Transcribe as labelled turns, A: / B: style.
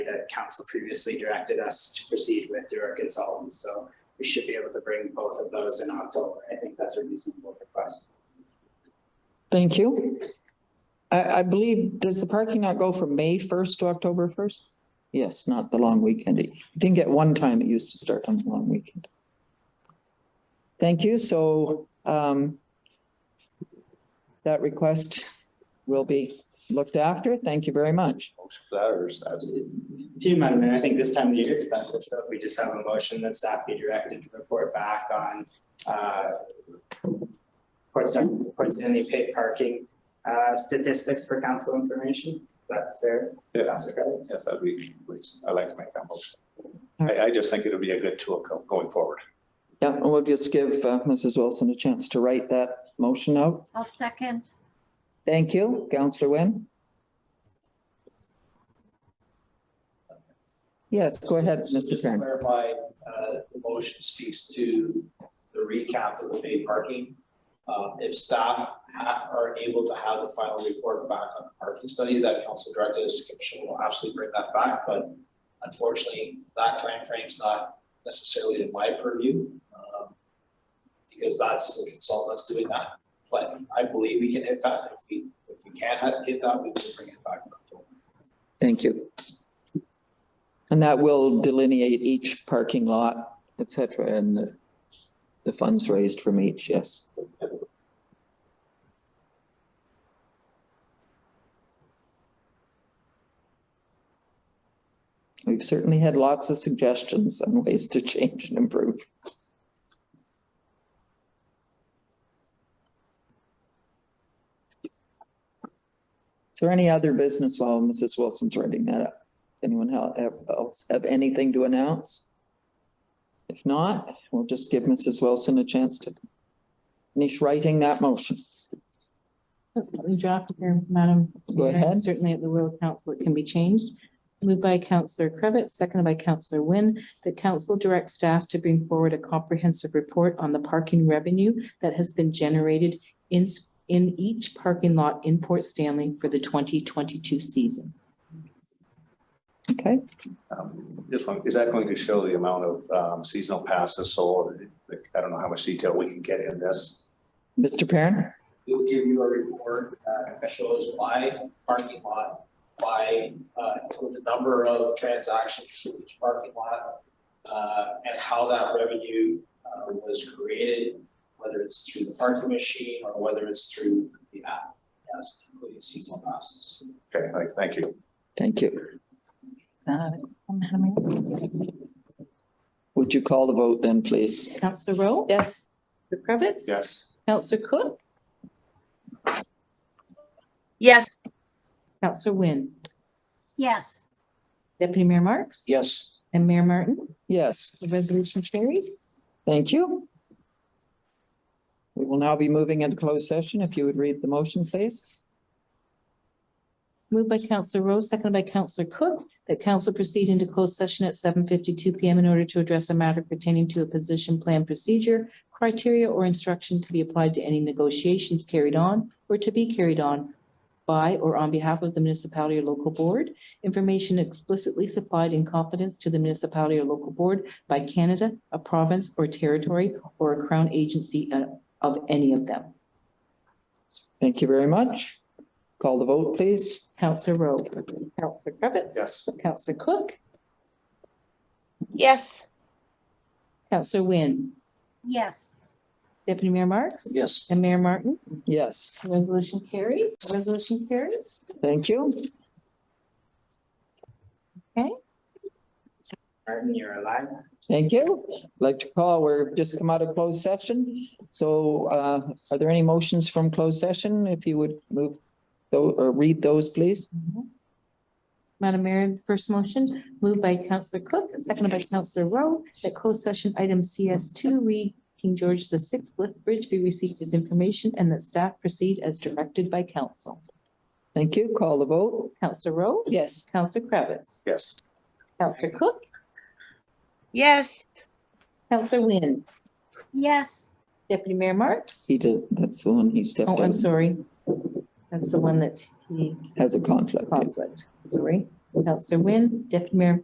A: council previously directed us to proceed with through our consultants. So we should be able to bring both of those in October. I think that's a reasonable request.
B: Thank you. I, I believe, does the parking not go from May first to October first? Yes, not the long weekend. I think at one time it used to start on the long weekend. Thank you, so, um, that request will be looked after. Thank you very much.
C: That or is that-
A: Do you mind, I think this time of year it's beneficial if we just have a motion that staff be directed to report back on uh, Port Stanley, Port Stanley paid parking uh, statistics for council information. That's fair.
C: yeah,
A: Council Creve?
C: yes, that'd be, please, I'd like to make that motion.
B: All right.
C: I, I just think it'll be a good tool go- going forward.
B: Yeah, and we'll just give uh, Mrs. Wilson a chance to write that motion out.
D: I'll second.
B: Thank you, Counselor Wynn. Yes, go ahead,
E: So
B: Mr.
E: Just to
B: Kern.
E: clarify, uh, the motion speaks to the recap of the paid parking. Uh, If staff ha- are able to have the final report back on the parking study that council directed us to commission, we'll absolutely bring that back. But unfortunately, that timeframe's not necessarily in my purview. um, Because that's the consultants doing that. But I believe we can hit that. If we, if we can't ha- hit that, we will bring it back.
B: Thank you. And that will delineate each parking lot, et cetera, and the, the funds raised from each, yes. We've certainly had lots of suggestions on ways to change and improve. Is there any other business while Mrs. Wilson's writing that up? Does Anyone hel- have- else have anything to announce? If not, we'll just give Mrs. Wilson a chance to finish writing that motion.
F: Just let me draft here, Madam.
B: Go
F: Mayor,
B: ahead.
F: Certainly at the will of council, it can be changed. Moved by Councillor Cravitt, seconded by Councillor Wynn, that council directs staff to bring forward a comprehensive report on the parking revenue that has been generated in, s- in each parking lot in Port Stanley for the twenty twenty-two season.
B: Okay,
C: Um, This one, is that going to show the amount of um, seasonal passes sold? Like, I don't know how much detail we can get in this.
B: Mr. Perrin,
E: we will give you a report uh, that shows by parking lot, by, uh, with the number of transactions in each parking lot, uh, and how that revenue, uh, was created, whether it's through the parking machine or whether it's through the app. Yes, including seasonal passes.
C: Okay, like, thank you.
B: thank you. Would you call the vote then, please?
F: Councillor Rowe? Yes. Councillor Cravitz?
C: Yes.
F: Councillor Cook?
G: yes,
F: Councillor Wynn?
D: Yes,
F: Deputy Mayor Marks?
E: Yes.
F: And Mayor Martin?
B: Yes.
F: The resolution carries.
B: Thank you. We will now be moving into closed session. If you would read the motion, please.
F: Moved by Counselor Rowe, seconded by Counselor Cook, that council proceed into closed session at seven fifty-two PM in order to address a matter pertaining to a position plan procedure, criteria or instruction to be applied to any negotiations carried on or to be carried on by or on behalf of the municipality or local board, information explicitly supplied in confidence to the municipality or local board by Canada, a province or territory, or a crown agency uh, of any of them.
B: Thank you very much. Call the vote, please.
F: Counselor Rowe. Counselor Cravitz.
C: Yes.
F: Counselor Cook.
G: yes.
F: Counselor Wynn,
D: yes.
F: Deputy Mayor Marks?
E: Yes.
F: And Mayor Martin?
B: Yes,
F: Resolution carries. Resolution carries.
B: thank you.
A: Martin, you're alive.
B: Thank you. Like to call, we're just come out of closed session. So uh, are there any motions from closed session? If you would move tho- or read those, please.
F: Mm-hmm. Madam Mayor, first motion moved by Councillor Cook, seconded by Councillor Rowe, that closed session item CS two, read King George the Sixth, Lethbridge be received as information and that staff proceed as directed by council.
B: Thank you. Call the vote.
F: Councillor Rowe?
B: Yes.
F: Councillor Kravitz,
C: Yes.
F: Councillor Cook?
G: Yes.
F: Councillor Wynn?
D: Yes.
F: Deputy Mayor Marks?
B: He did, that's the one he stepped
F: Oh, I'm
B: out,
F: sorry. That's the one that he
B: has a conflict.
F: conflict, sorry. Counselor Wynn, Deputy Mayor